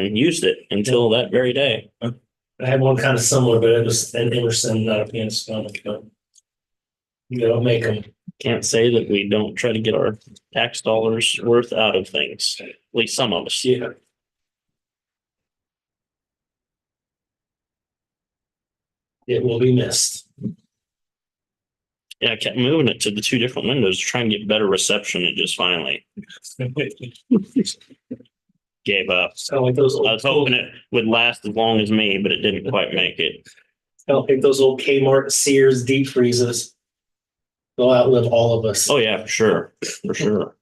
and used it until that very day. I had one kind of similar, but it was an Emerson, not a Panasonic, but. You know, make them, Can't say that we don't try to get our tax dollars worth out of things, at least some of us. yeah. It will be missed. Yeah, I kept moving it to the two different windows, to try and get better reception and just finally gave up. Sound like those. old- I was hoping it would last as long as me, but it didn't quite make it. Sound like those old Kmart Sears deep freezes. They'll outlive all of us. Oh, yeah, for sure, for sure.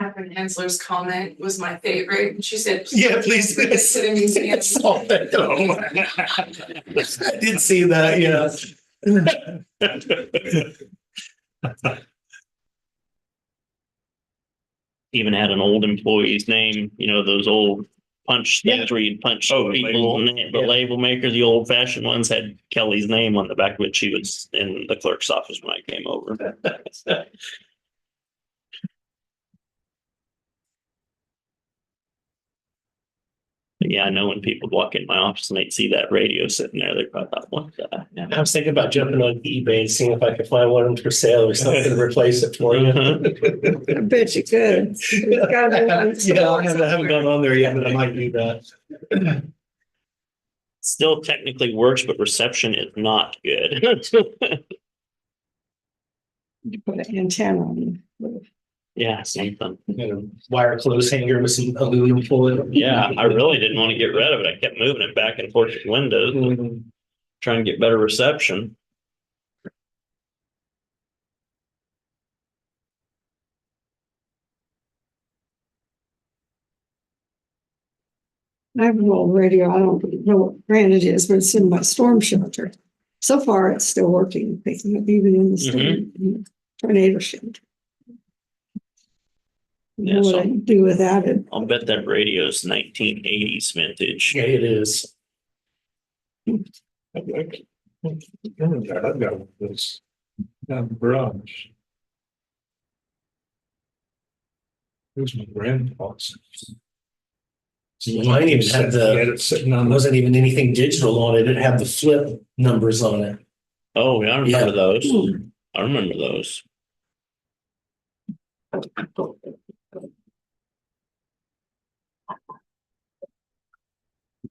Catherine Hensler's comment was my favorite. and She said. Yeah, please. It's in a museum. all that. I did see that, yeah. Even had an old employee's name, you know, those old punch things where you'd punch Oh, the people. and The Yeah. label maker, the old fashioned ones had Kelly's name on the back, which she was in the clerk's office when I came over. But Yeah, I know when people walk in my office and they'd see that radio sitting there, they probably thought, what the? heck?" I was thinking about jumping on eBay and seeing if I could find one for sale or something to replace it for you. I bet you could. It's gotta be on Yeah, I haven't, I haven't gone on there yet, but I might do that. Still technically works, but reception is not good. You Put an antenna on it. Yeah, something. You know, Wire clothes hanger with some aluminum foil. Yeah, I really didn't want to get rid of it. I kept moving it back and forth to windows, Mm, trying to get better reception. I have an old radio. I don't know what brand it is, but it's in my storm shelter. So far, it's still working, picking up even in the storm, in the tornado shelter. Yeah, Know what so- I'd do without it. I'll bet that radio's nineteen eighties vintage. Yeah, it is. I've got I've got this down the garage. It was my grandpa's. Mine even had the- He Had it sitting It on the, wasn't even anything digital on it. It had the flip numbers on it. Oh, yeah, I Yeah. remember those. I remember those.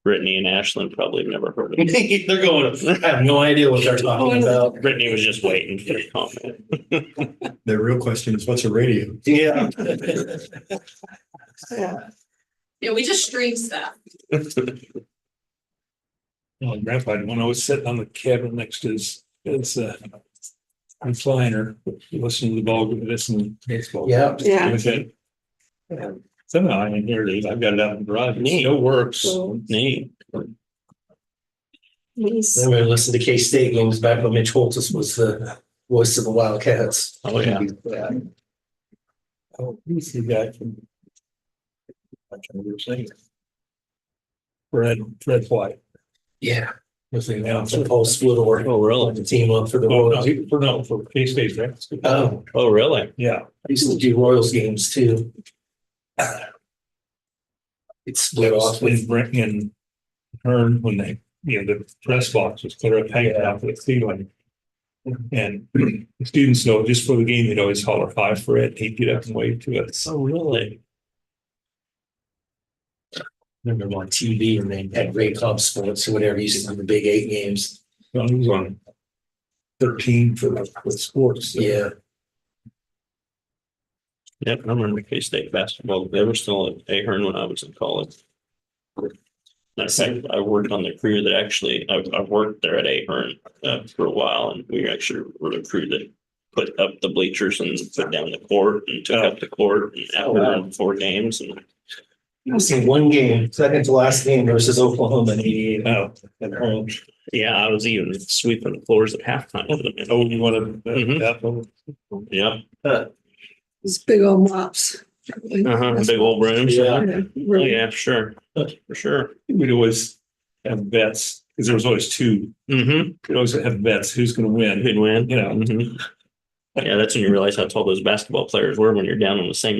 Brittany and Ashlyn probably never heard of it. They're going, I have no idea what they're talking about. Brittany was just waiting for the comment. The real question is, what's a radio? Yeah. Yeah. Yeah, we just stream stuff. my oh, grandpa had one I was sitting on the cabin next to his, his, uh. Recliner, listening to the ball, listening to baseball. Yeah. Yeah. It was it. Somehow I inherited it. I've got it out in the garage. It Neat. still works. So, Neat. these- Then we listened to K State games back when Mitch Holtis was the voice of the Wildcats. Oh, yeah. Oh, he's the guy from. I can't remember his name. Fred, Fred White. Yeah. Was the announcer Paul Splitter. Oh, Like really? the team up for the Oh, no, Royals. he- for no, for K State, right? Oh, Oh, really? Yeah, I used to do Royals games too. It split that off was when with, Brent and Hearn, when they, you know, the press box was clear up hanging out with Cleveland. And the students know just for the game, they'd always holler hi for it. He'd get up and wave to us. Oh, really? remember on TV and they had Ray Cobb Sports or whatever, used to do the Big Eight games. Well, He was on thirteen for for sports. Yeah. Yep, I remember K-State basketball. They were still at Ahern when I was in college. In fact, I worked on the crew that actually, I, I worked there at Ahern, uh, for a while and we actually were the crew that put up the bleachers and put down the court and took up the court and Oh, wow. after four games and I was in one game, second to last game versus Oklahoma in eighty-eight. Oh, at home. yeah, I was even sweeping the floors at halftime. for them. oh, you want to, Mhm. that one? Yep, These big old mops. uh-huh, big old rooms. Yeah. Yeah, Oh, really. yeah, for sure, for sure. we'd always have bets, because there was always two, Mm-hmm, we'd always have bets, who's gonna win? good win. You know. Mhm. Yeah, that's when you realize how tall those basketball players were when you're down on the same